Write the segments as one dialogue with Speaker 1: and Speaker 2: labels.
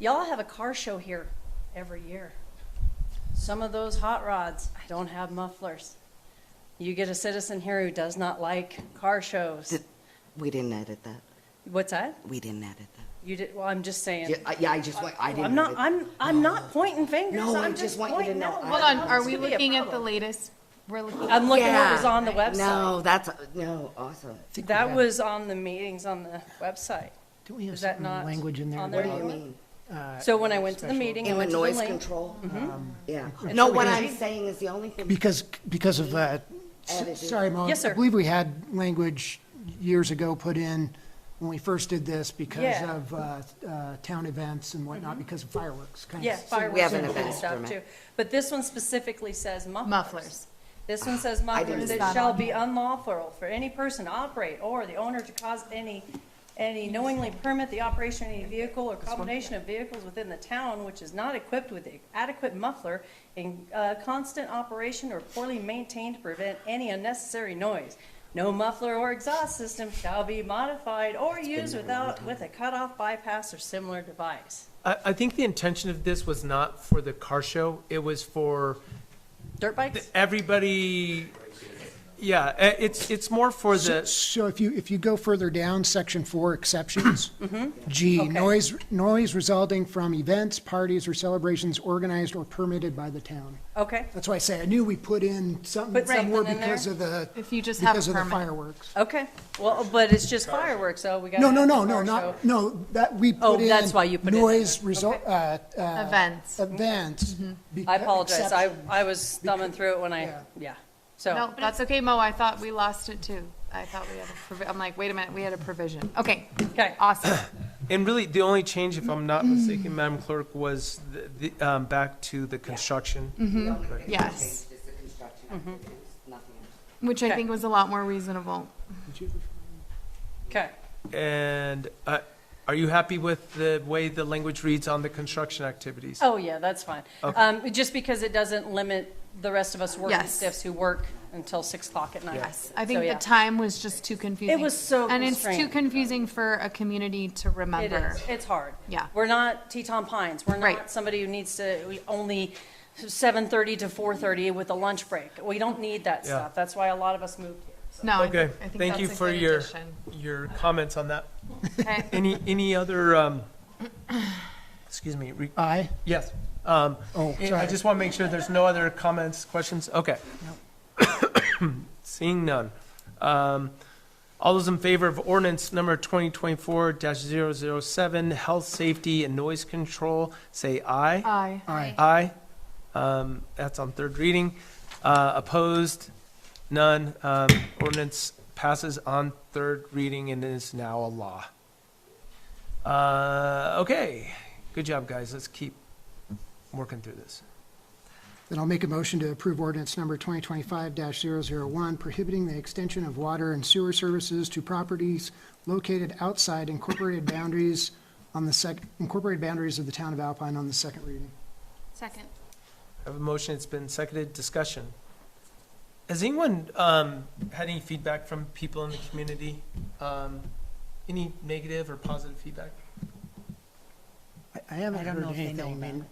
Speaker 1: Y'all have a car show here every year. Some of those hot rods, I don't have mufflers. You get a citizen here who does not like car shows.
Speaker 2: Did- We didn't edit that.
Speaker 1: What's that?
Speaker 2: We didn't edit that.
Speaker 1: You did, well, I'm just saying.
Speaker 2: Yeah, I- Yeah, I just, want- I didn't.
Speaker 1: I'm not,
Speaker 2: edit-
Speaker 1: I'm, I'm not pointing fingers.
Speaker 2: No, I
Speaker 1: I'm
Speaker 2: just want you to
Speaker 1: pointing
Speaker 2: know.
Speaker 1: out
Speaker 2: I-
Speaker 1: what
Speaker 2: Hold
Speaker 3: Hold on,
Speaker 1: this
Speaker 3: are
Speaker 1: could
Speaker 3: we
Speaker 1: be a
Speaker 3: looking at the
Speaker 1: problem.
Speaker 3: latest? We're looking.
Speaker 1: I'm looking at what
Speaker 2: Yeah.
Speaker 1: was on the website.
Speaker 2: No, that's, no, awesome.
Speaker 1: That was on the meetings on the website.
Speaker 4: Don't we have
Speaker 1: Is that
Speaker 4: certain
Speaker 1: not
Speaker 4: language in there?
Speaker 1: on
Speaker 2: What
Speaker 1: there
Speaker 2: do
Speaker 4: about,
Speaker 2: you
Speaker 1: anymore?
Speaker 2: mean?
Speaker 4: uh,
Speaker 1: So when I went to the
Speaker 4: special-
Speaker 1: meeting, I
Speaker 2: And
Speaker 1: went
Speaker 2: with
Speaker 1: to the link.
Speaker 2: noise
Speaker 1: Mm-hmm.
Speaker 2: control? Um, Yeah.
Speaker 1: It's
Speaker 2: No,
Speaker 1: really
Speaker 2: what
Speaker 1: easy.
Speaker 2: I'm saying is the only thing,
Speaker 4: Because, because of, uh, s-
Speaker 2: Edited.
Speaker 4: sorry, Mo.
Speaker 1: Yes, sir.
Speaker 4: I believe we had language years ago put in when we first did this because
Speaker 1: Yeah. Mm-hmm.
Speaker 4: of uh, uh, town events and whatnot, because of fireworks. kind of
Speaker 1: Yeah,
Speaker 4: similar.
Speaker 1: fireworks.
Speaker 2: We have an
Speaker 1: and
Speaker 2: event
Speaker 1: stuff
Speaker 2: permit.
Speaker 1: too. But this one specifically says mufflers.
Speaker 3: Mufflers.
Speaker 1: This one says mufflers,
Speaker 2: didn't
Speaker 1: it
Speaker 2: see that
Speaker 1: shall
Speaker 3: one.
Speaker 1: be unlawful for any person to operate or the owner to cause any, any knowingly permit the operation of any vehicle or combination of vehicles within the town which is not equipped with the adequate muffler in, uh, constant operation or poorly maintained to prevent any unnecessary noise. No muffler or exhaust system shall be modified or used without, with a cutoff bypass or similar device.
Speaker 5: I, I think the intention of this was not for the car show. It was for
Speaker 1: Dirt
Speaker 5: the-
Speaker 1: bikes?
Speaker 5: everybody. Yeah, eh, it's, it's more for
Speaker 4: So-
Speaker 5: the,
Speaker 4: So if you, if you go further down, section four, exceptions.
Speaker 1: Mm-hmm.
Speaker 4: G, noise, noise resulting from events, parties, or celebrations organized or permitted by the town.
Speaker 1: Okay,
Speaker 4: That's why I say, I knew we put in something
Speaker 1: Put
Speaker 4: somewhere
Speaker 1: something in
Speaker 4: because
Speaker 1: there?
Speaker 4: of the,
Speaker 3: If you just have a
Speaker 4: because of the
Speaker 3: permit.
Speaker 4: fireworks.
Speaker 1: okay. Well, but it's just fireworks, so we gotta.
Speaker 4: No, no,
Speaker 1: have the
Speaker 4: no, no,
Speaker 1: car show.
Speaker 4: not, no, that, we
Speaker 1: Oh,
Speaker 4: put in.
Speaker 1: that's why you put it in
Speaker 4: Noise
Speaker 1: there. Mm-hmm.
Speaker 4: result, uh, uh,
Speaker 3: Events.
Speaker 4: events.
Speaker 1: I
Speaker 4: beca-
Speaker 1: apologize. I,
Speaker 4: exception.
Speaker 1: I was thumbing through it when I,
Speaker 4: Yeah.
Speaker 1: yeah.
Speaker 3: No,
Speaker 1: So,
Speaker 3: that's okay, Mo, I thought we lost it too. I thought we had a provi, I'm like, wait a minute, we had a provision. Okay,
Speaker 1: okay.
Speaker 3: awesome.
Speaker 5: and really, the only change, if I'm not mistaken, Madam Clerk, was the, the, um, back to the construction.
Speaker 2: the only thing that
Speaker 3: Yes.
Speaker 2: changed is the construction
Speaker 1: Mm-hmm.
Speaker 2: activities, nothing else.
Speaker 3: Which I
Speaker 1: Okay.
Speaker 3: think was a lot more reasonable.
Speaker 1: Okay.
Speaker 5: And, uh, are you happy with the way the language reads on the construction activities?
Speaker 1: Oh, yeah, that's fine. Um, just because it doesn't limit the rest of us working
Speaker 3: Yes.
Speaker 1: stiffs who work until six o'clock at night.
Speaker 3: Yes, I
Speaker 1: So,
Speaker 3: think
Speaker 1: yeah.
Speaker 3: the time was just too confusing.
Speaker 1: was so
Speaker 3: And it's too
Speaker 1: constrained.
Speaker 3: confusing for a community to
Speaker 1: It
Speaker 3: remember.
Speaker 1: is. It's hard.
Speaker 3: Yeah.
Speaker 1: We're not Teton Pines. We're
Speaker 3: Right.
Speaker 1: not somebody who needs to, we only seven thirty to four thirty with a lunch break. We don't need that
Speaker 5: Yeah.
Speaker 1: stuff. That's why a lot of us moved here. so.
Speaker 3: No, I
Speaker 5: Okay,
Speaker 3: think, I think
Speaker 5: thank you
Speaker 3: that's a
Speaker 5: for
Speaker 3: good
Speaker 5: your,
Speaker 3: addition.
Speaker 5: your comments on that.
Speaker 3: Okay.
Speaker 5: Any, any other, um, excuse me, re-
Speaker 4: I,
Speaker 5: Yes. um,
Speaker 4: Oh,
Speaker 5: I- I
Speaker 4: sorry.
Speaker 5: just want to make sure there's no other comments, questions? Okay. Seeing none. Um, All those in favor of ordinance number 2024-007, health, safety, and noise control, say aye.
Speaker 3: Aye.
Speaker 4: I,
Speaker 5: Aye. Um, That's on third reading. Uh, Opposed? None. Um, Ordinance passes on third reading and is now a law. Uh, Okay, good job, guys. Let's keep working through this.
Speaker 4: then I'll make a motion to approve ordinance number 2025-001, prohibiting the extension of water and sewer services to properties located outside incorporated boundaries on the sec, incorporated boundaries of the town of Alpine on the second reading.
Speaker 3: Second.
Speaker 5: I have a motion. It's been seconded. Discussion. Has anyone um, had any feedback from people in the community? Um, Any negative or positive feedback?
Speaker 4: I- I haven't heard anything. and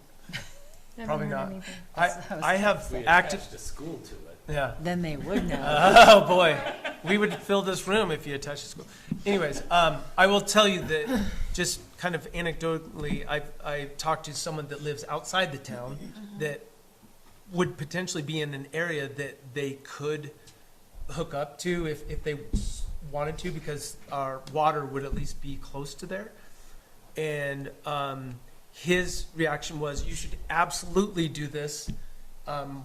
Speaker 5: Probably not. I, I have active,
Speaker 6: attached a school to it.
Speaker 5: yeah.
Speaker 7: Then they would know.
Speaker 5: Oh, boy. We would fill this room if you attached a school. Anyways, um, I will tell you that, just kind of anecdotally, I, I talked to someone that lives outside the town
Speaker 7: Mm-hmm.
Speaker 5: that would potentially be in an area that they could hook up to if, if they wanted to, because our water would at least be close to there. And, um, his reaction was, you should absolutely do this. Um,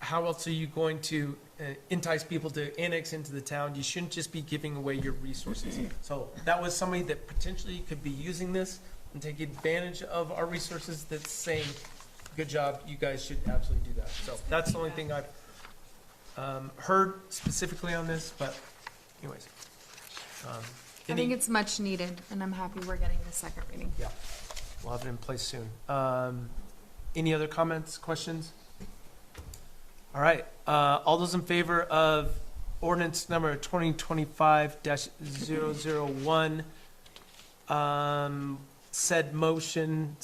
Speaker 5: how else are you going to uh, entice people to annex into the town? You shouldn't just be giving away your resources. So that was somebody that potentially could be using this and take advantage of our resources that's saying, good job, you guys should absolutely do that. So that's the only thing I've um, heard specifically on this, but anyways. Um,
Speaker 3: I
Speaker 5: any-
Speaker 3: think it's much needed, and I'm happy we're getting the second reading.
Speaker 5: yeah, we'll have it in place soon. Um, Any other comments, questions? All right, uh, all those in favor of ordinance number 2025-001, um, said motion